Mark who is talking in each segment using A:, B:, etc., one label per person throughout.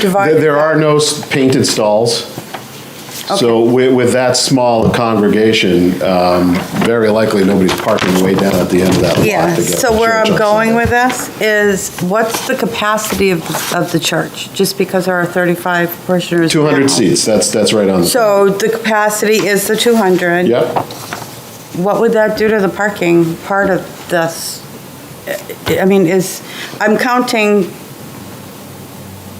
A: Divided.
B: There there are no s- painted stalls. So with, with that small congregation, um, very likely nobody's parking way down at the end of that lot. to
A: Yeah,
B: get to
A: so where
B: church
A: I'm
B: on
A: going
B: Sunday.
A: with this is, what's the capacity of, of the church? Just because there are 35 parishioners.
B: 200
A: now.
B: seats, that's, that's right on. the-
A: So the capacity is the 200.
B: Yep,
A: What would that do to the parking part of this? I mean, is, I'm counting,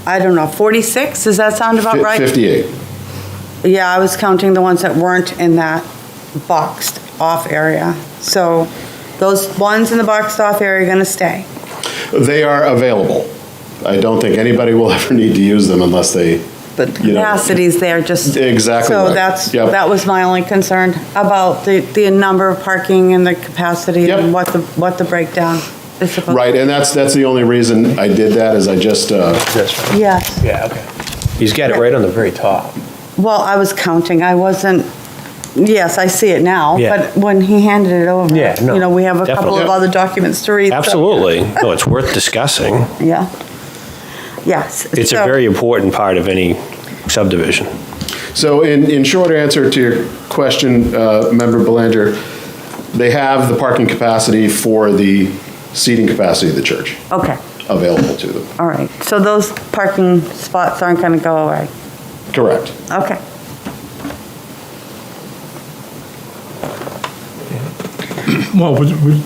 A: I don't know, 46? Does that sound about
B: fi-
A: right?
B: 58.
A: Yeah, I was counting the ones that weren't in that boxed off area. So those ones in the boxed off area are going to stay.
B: They are available. I don't think anybody will ever need to use them unless they,
A: But the
B: You know,
A: capacity's there, just.
B: exactly
A: So
B: right.
A: that's,
B: Yep.
A: that was my only concern about the, the number of parking and the capacity
B: Yep.
A: and what the, what the breakdown is supposed.
B: right, and that's, that's the only reason I did that, is I just, uh,
C: That's right.
A: Yes.
C: Yeah, okay. He's got it right on the very top.
A: Well, I was counting. I wasn't, yes, I see it now.
C: Yeah.
A: But when he handed it over.
C: Yeah, no,
A: You know, we have a couple of
C: definitely.
A: other documents to read. so-
C: Absolutely. No, it's worth discussing.
A: Yeah. Yes.
C: It's a
A: so-
C: very important part of any subdivision.
B: So in, in short answer to your question, uh, Member Belanger, they have the parking capacity for the seating capacity of the church
A: Okay,
B: available to them.
A: all right. So those parking spots aren't going to go away?
B: Correct.
A: Okay.
D: Well, would, would,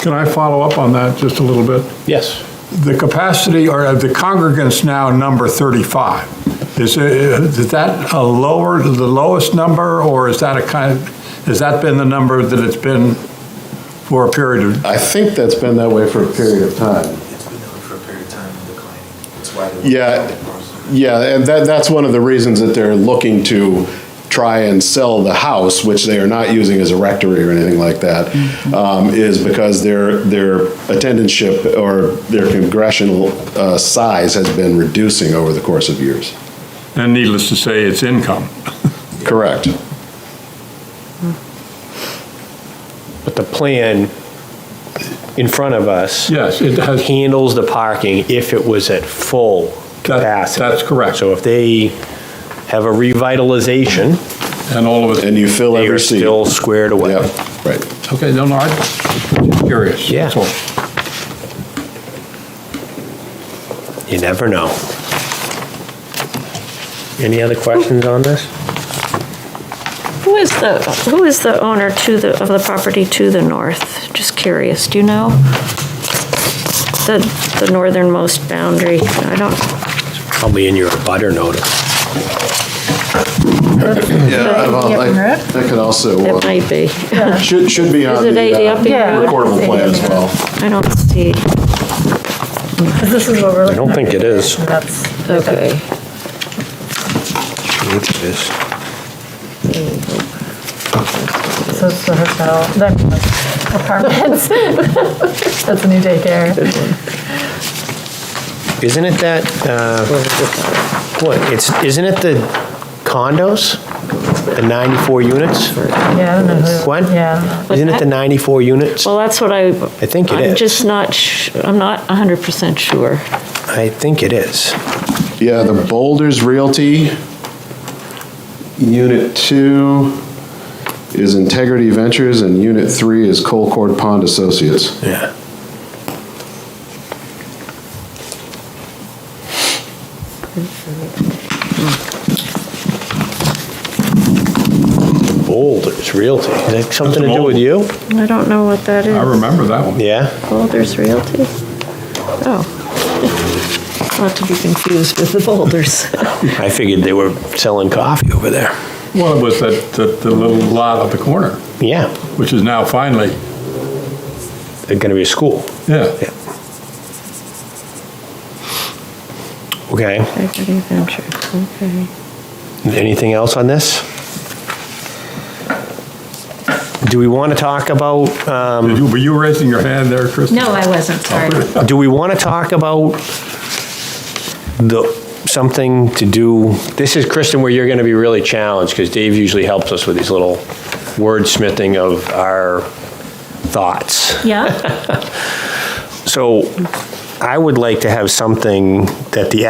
D: can I follow up on that just a little bit?
C: Yes.
D: The capacity, or uh, the congregants now number 35. Is, it- is that a lower, the lowest number, or is that a kind, has that been the number that it's been for a period of?
B: I think that's been that way for a period of time.
E: It's been known for a period of time and declining. That's why they're.
B: Yeah, yeah, and that, that's one of the reasons that they're looking to try and sell the house, which they are not using as a rectory or anything like that, um, is because their, their attendantship or their congressional, uh, size has been reducing over the course of years.
D: And needless to say, it's income.
B: Correct.
C: But the plan in front of us
D: Yes, it has.
C: handles the parking if it was at full
D: That-
C: capacity.
D: that's correct.
C: So if they have a revitalization,
D: And all of it,
B: And you fill
C: they are
B: every seat.
C: still squared away.
B: Yep, right.
D: okay, no, no, I'm just curious.
C: Yeah.
D: that's all.
C: You never know. Any other questions on this?
F: Who is the, who is the owner to the, of the property to the north? Just curious, do you know? The, the northernmost boundary, I don't,
C: Probably in your butter notice.
B: Yeah, well, I-
A: Yeah.
B: that could also,
F: it
B: uh,
F: might be,
B: should, should be on
F: it
B: the uh,
F: ADP road?
B: recordable plan as well.
F: I don't see,
G: Because this is over.
C: I don't think it is.
G: That's,
F: okay.
G: so it's the hotel, that apartments. That's a new daycare.
C: Isn't it that, uh, what, it's, isn't it the condos? The 94 units?
G: Yeah, I don't know who.
C: What?
G: Yeah.
C: Isn't it the 94 units?
F: Well, that's what I. I
C: think it
F: I'm
C: is.
F: just not, sh- I'm not 100% sure.
C: I think it is.
B: Yeah, the Boulders Realty, Unit 2 is Integrity Ventures, and Unit 3 is Colcord Pond Associates.
C: Yeah. Boulders Realty, is that something to do with you?
F: I don't know what that
D: I
F: is.
D: remember that one.
C: Yeah,
F: Boulders Realty? Oh. Not to be confused with the Boulders.
C: I figured they were selling coffee over there.
D: Well, it was that, that the little lot at the corner,
C: Yeah,
D: which is now finally,
C: they're gonna be a school.
D: yeah.
C: Okay,
F: Equity Ventures, okay.
C: anything else on this? Do we want to talk about, um,
D: Did you- Were you raising your hand there, Chris?
G: No, I wasn't,
D: Oh,
G: sorry.
C: do we want to talk about the, something to do, this is, Kristen, where you're going to be really challenged, because Dave usually helps us with these little wordsmithing of our thoughts.
G: Yeah?
C: So I would like to have something that the